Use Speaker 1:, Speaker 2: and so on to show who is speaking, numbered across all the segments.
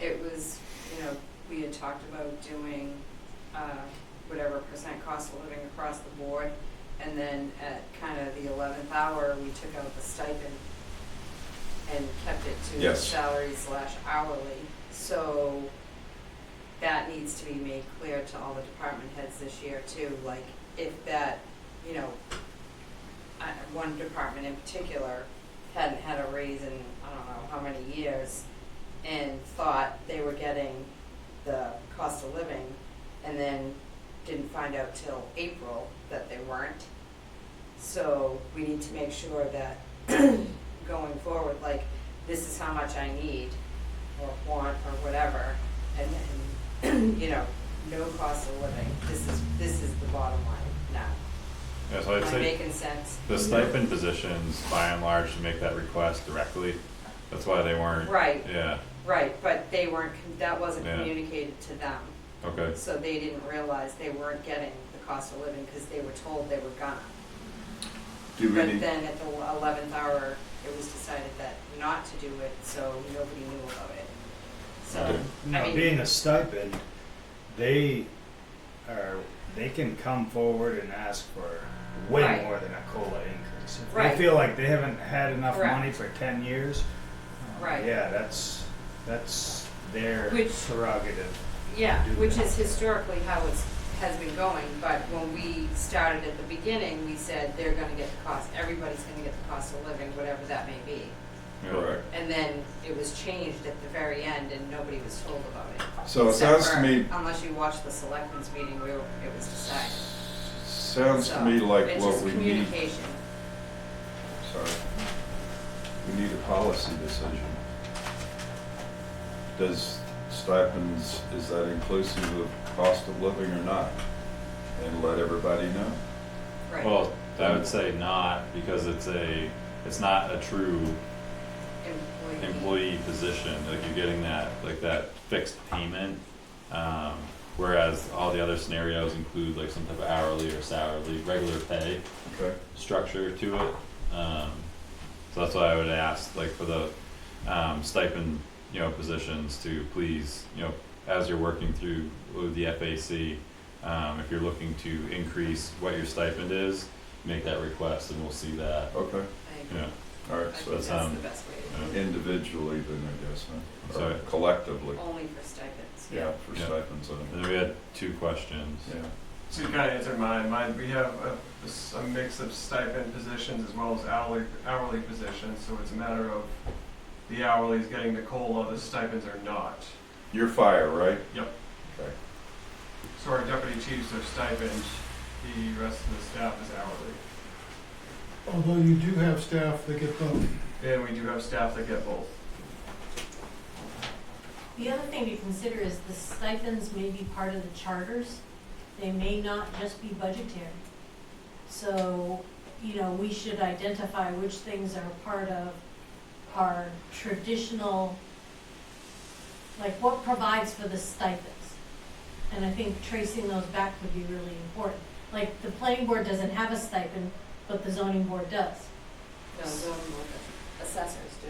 Speaker 1: was, you know, we had talked about doing, uh, whatever percent cost of living across the board. And then at kind of the eleventh hour, we took out the stipend and kept it to
Speaker 2: Yes.
Speaker 1: salary slash hourly. So that needs to be made clear to all the department heads this year too, like if that, you know, I- one department in particular hadn't had a raise in, I don't know how many years, and thought they were getting the cost of living, and then didn't find out till April that they weren't. So we need to make sure that going forward, like, this is how much I need, or want, or whatever, and then, you know, no cost of living, this is, this is the bottom line now.
Speaker 3: Yeah, so I'd
Speaker 1: Am I
Speaker 3: say
Speaker 1: making sense?
Speaker 3: the stipend positions, by and large, to make that request directly. That's why they weren't.
Speaker 1: Right.
Speaker 3: Yeah,
Speaker 1: Right, but they weren't, that wasn't
Speaker 3: Yeah.
Speaker 1: communicated to them.
Speaker 3: okay.
Speaker 1: So they didn't realize they weren't getting the cost of living because they were told they were gonna.
Speaker 2: Do we
Speaker 1: But
Speaker 2: need,
Speaker 1: then at the eleventh hour, it was decided that not to do it, so nobody knew about it. So,
Speaker 3: Okay.
Speaker 1: I
Speaker 4: Now,
Speaker 1: mean-
Speaker 4: being a stipend, they are, they can come forward and ask for
Speaker 1: Right.
Speaker 4: way more than a COLA increase. If
Speaker 1: Right.
Speaker 4: they feel like they haven't had enough
Speaker 1: Correct.
Speaker 4: money for ten years, uh,
Speaker 1: Right.
Speaker 4: yeah, that's, that's their
Speaker 1: Which-
Speaker 4: prerogative.
Speaker 1: yeah,
Speaker 4: Do
Speaker 1: which
Speaker 4: that.
Speaker 1: is historically how it's, has been going, but when we started at the beginning, we said they're gonna get the cost, everybody's gonna get the cost of living, whatever that may be.
Speaker 3: Yeah.
Speaker 2: correct.
Speaker 1: And then it was changed at the very end and nobody was told about it.
Speaker 2: So it
Speaker 1: Except
Speaker 2: sounds to
Speaker 1: for-
Speaker 2: me,
Speaker 1: Unless you watch the selectmen's meeting where it was decided.
Speaker 2: sounds
Speaker 1: So,
Speaker 2: to me like
Speaker 1: it's
Speaker 2: what
Speaker 1: just
Speaker 2: we need,
Speaker 1: Communication,
Speaker 2: sorry. We need a policy decision. Does stipends, is that inclusive of cost of living or not? And let everybody know.
Speaker 1: right.
Speaker 3: Well, I would say not, because it's a, it's not a true employee position, like you're getting that, like that fixed payment. Um, whereas all the other scenarios include like some type of hourly or salary, regular pay
Speaker 2: Okay.
Speaker 3: structure to it. Um, so that's why I would ask, like for the, um, stipend, you know, positions to please, you know, as you're working through with the FAC, um, if you're looking to increase what your stipend is, make that request and we'll see that,
Speaker 2: Okay,
Speaker 1: I
Speaker 3: you
Speaker 1: agree.
Speaker 3: know.
Speaker 2: all
Speaker 1: I
Speaker 2: right,
Speaker 1: think
Speaker 2: so
Speaker 1: that's
Speaker 3: that's,
Speaker 1: the
Speaker 3: um,
Speaker 1: best way,
Speaker 3: you know.
Speaker 2: individually then, I guess, huh? Or
Speaker 3: Sorry.
Speaker 2: collectively,
Speaker 1: to- only for stipends.
Speaker 2: yeah, for
Speaker 3: Yeah.
Speaker 2: stipends, I
Speaker 3: And
Speaker 2: think.
Speaker 3: then we had two questions.
Speaker 2: yeah.
Speaker 5: So you kind of answered mine. Mine, we have a, a s- a mix of stipend positions as well as hourly, hourly positions, so it's a matter of the hourly is getting the COLA, the stipends are not.
Speaker 2: You're fire, right?
Speaker 5: Yep.
Speaker 2: Okay.
Speaker 5: So our deputy chiefs are stipend, the rest of the staff is hourly.
Speaker 6: Although you do have staff that get both.
Speaker 5: And we do have staff that get both.
Speaker 7: The other thing to consider is the stipends may be part of the charters. They may not just be budgetary. So, you know, we should identify which things are part of our traditional, like what provides for the stipends. And I think tracing those back would be really important. Like, the planning board doesn't have a stipend, but the zoning board does.
Speaker 1: No, zoning board doesn't. assessors do.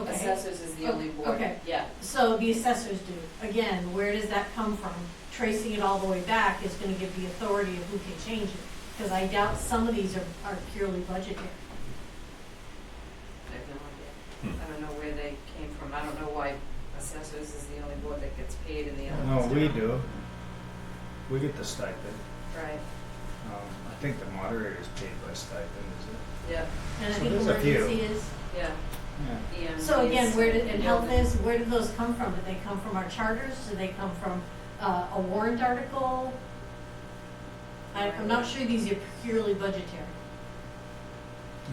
Speaker 7: Okay.
Speaker 1: Assessors is the
Speaker 7: Oh,
Speaker 1: only board,
Speaker 7: okay.
Speaker 1: yeah.
Speaker 7: So the assessors do. Again, where does that come from? Tracing it all the way back is gonna give the authority of who can change it, because I doubt some of these are, are purely budgetary.
Speaker 1: I have no idea.
Speaker 3: Hmm.
Speaker 1: I don't know where they came from. I don't know why assessors is the only board that gets paid and the other
Speaker 4: No,
Speaker 1: ones
Speaker 4: we
Speaker 1: don't.
Speaker 4: do. We get the stipend.
Speaker 1: Right,
Speaker 4: Um, I think the moderator is paid by stipend, is
Speaker 1: yeah,
Speaker 7: And I
Speaker 4: So
Speaker 7: think
Speaker 4: there's a few.
Speaker 7: emergency is,
Speaker 1: yeah. E
Speaker 4: it? Yeah.
Speaker 1: EMTs,
Speaker 7: so again, where did, and health
Speaker 1: building.
Speaker 7: is, where do those come from? Do they come from our charters? Do they come from, uh, a warrant article? I, I'm not sure these are purely budgetary.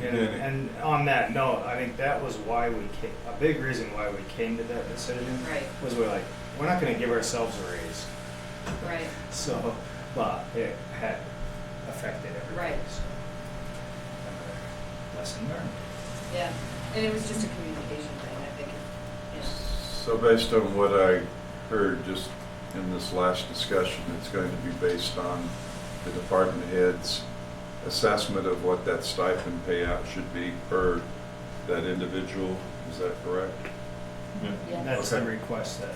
Speaker 4: And,
Speaker 2: Yeah.
Speaker 4: and on that note, I think that was why we came, a big reason why we came to that decision
Speaker 1: Right,
Speaker 4: was we're like, we're not going to give ourselves a raise.
Speaker 1: right.
Speaker 4: So, but it had affected everybody.
Speaker 1: Right.
Speaker 4: So, another lesson learned.
Speaker 1: Yeah, and it was just a communication thing, I think, yeah.
Speaker 2: So based on what I heard just in this last discussion, it's going to be based on the department head's assessment of what that stipend payout should be per that individual, is that correct?
Speaker 3: Yeah.
Speaker 4: That's the
Speaker 2: Okay.
Speaker 4: request that